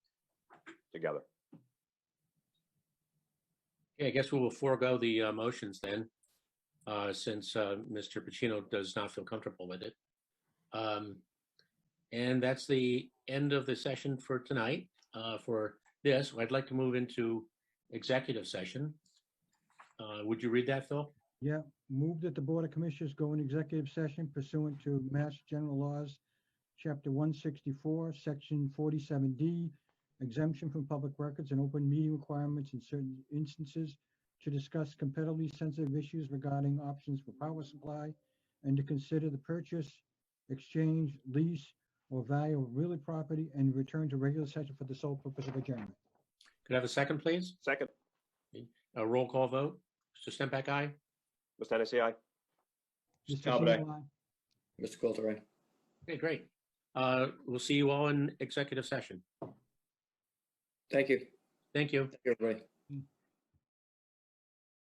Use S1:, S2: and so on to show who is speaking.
S1: together.
S2: Yeah, I guess we will forego the uh, motions then, uh, since uh, Mr. Pacino does not feel comfortable with it. Um, And that's the end of the session for tonight. Uh, For this, I'd like to move into executive session. Uh, Would you read that, Phil?
S3: Move that the Board of Commissioners go in executive session pursuant to Mass General Laws, Chapter 164, Section 47D, exemption from public records and open meeting requirements in certain instances to discuss competitively sensitive issues regarding options for power supply and to consider the purchase, exchange, lease, or value of real property and return to regular session for the sole purpose of adjournment.
S2: Could I have a second, please?
S1: Second,
S2: A roll call vote? Mr. Stempak, aye?
S1: Mr. Hennessy, aye.
S3: Mr.
S4: Talbot, aye.
S3: Singleton, aye.
S4: Mr. Coulter, aye.
S2: Okay, great. Uh, We'll see you all in executive session.
S4: Thank you.
S2: Thank you.
S4: Thank you, everybody.